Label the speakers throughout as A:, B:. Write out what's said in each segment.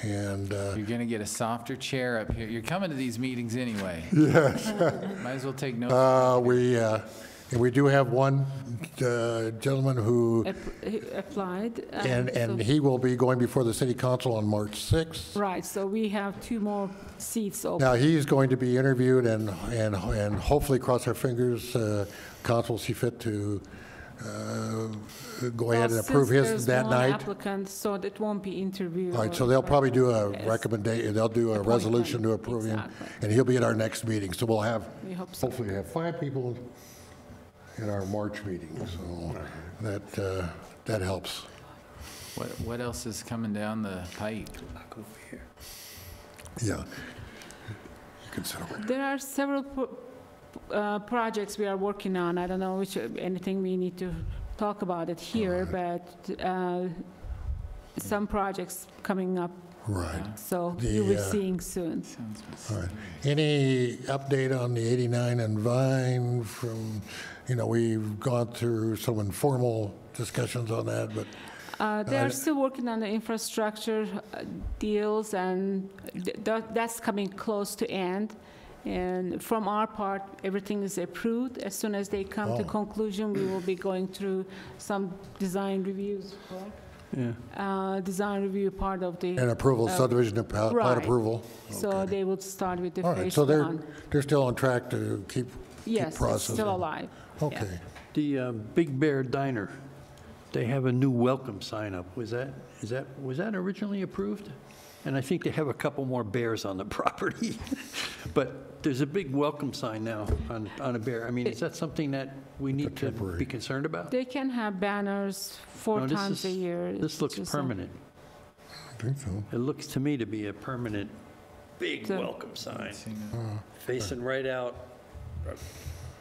A: And uh,
B: You're going to get a softer chair up here. You're coming to these meetings anyway. Might as well take notes.
A: uh, we, uh, and we do have one uh, gentleman who,
C: App- he Applied. um,
A: and, and
C: so-
A: he will be going before the city council on March 6th.
C: Right, so we have two more seats open.
A: Now, he's going to be interviewed and, and, and hopefully, cross our fingers, uh, council will see fit to uh, go ahead and
C: Well,
A: approve
C: since
A: his
C: there's
A: that
C: one
A: night.
C: applicant, so that won't be interviewed.
A: All right, so
C: or-
A: they'll probably do a
C: Yes,
A: recommendation, they'll do a resolution to approve him,
C: Exactly.
A: and he'll be at our next meeting, so we'll have,
C: We hope so.
A: hopefully have five people in our March meeting, so that, uh, that helps.
B: What, what else is coming down the pike?
A: Yeah. You can sit over.
C: There are several pro- uh, projects we are working on. I don't know which, anything we need to talk about it here, but uh, some projects coming up,
A: Right,
C: so
A: The,
C: you will
A: uh,
C: seeing soon.
B: Sounds good.
A: all right. Any update on the 89 and Vine from, you know, we've gone through some informal discussions on that, but
C: Uh, They
A: I-
C: are still working on the infrastructure uh, deals, and th- tha- that's coming close to end. And from our part, everything is approved. As soon as they come to
A: Oh.
C: conclusion, we will be going through some design reviews, correct?
D: Yeah.
C: Uh, design review part of
A: an
C: the,
A: approval, subdivision and plat plat
C: Oh, right.
A: approval.
C: so they will start with the
A: All right,
C: phase
A: so they're,
C: one.
A: they're still on track to keep, keep
C: Yes, it's
A: processing?
C: still alive. Yeah.
A: Okay.
D: The uh, Big Bear Diner, they have a new welcome sign up. Was that, is that, was that originally approved? And I think they have a couple more bears on the property. But there's a big welcome sign now on, on a bear. I mean, is that something that we need to be concerned about?
C: They can have banners four
D: No, this
C: times a
D: is-
C: year. It's
D: This looks
C: just a-
D: permanent.
A: I think so.
D: It looks to me to be a permanent, big
C: So-
D: welcome sign,
B: Seeing that.
D: facing right out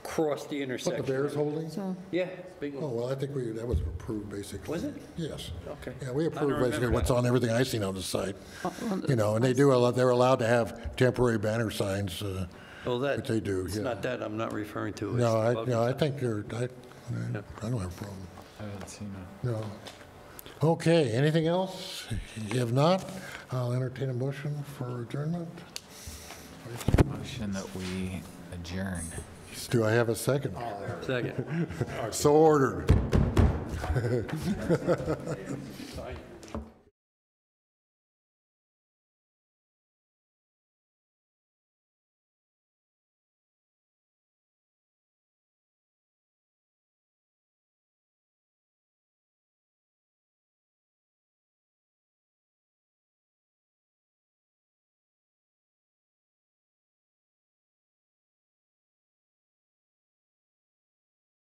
D: across the
A: What the
D: intersection.
A: Bears holding?
C: So-
D: Yeah, big
A: Oh,
D: one.
A: well, I think we, that was approved, basically.
D: Was it?
A: Yes.
D: Okay.
A: Yeah, we
D: I don't
A: approved basically
D: remember Oh,
A: what's
D: that.
A: on everything I seen on the site. You know, and they do, allow- they're allowed to have temporary banner signs. uh,
D: Well, that.
A: But they do,
D: It's
A: yeah.
D: not that I'm not referring to. It's
A: No, I,
D: welcome
A: no, I
D: sign.
A: think you're, I, I don't have a problem.
B: I haven't seen it.
A: No. Okay, anything else? If not, I'll entertain a motion for adjournment.
B: Motion that we adjourn.
A: Do I have a second?
D: Second.
A: So ordered.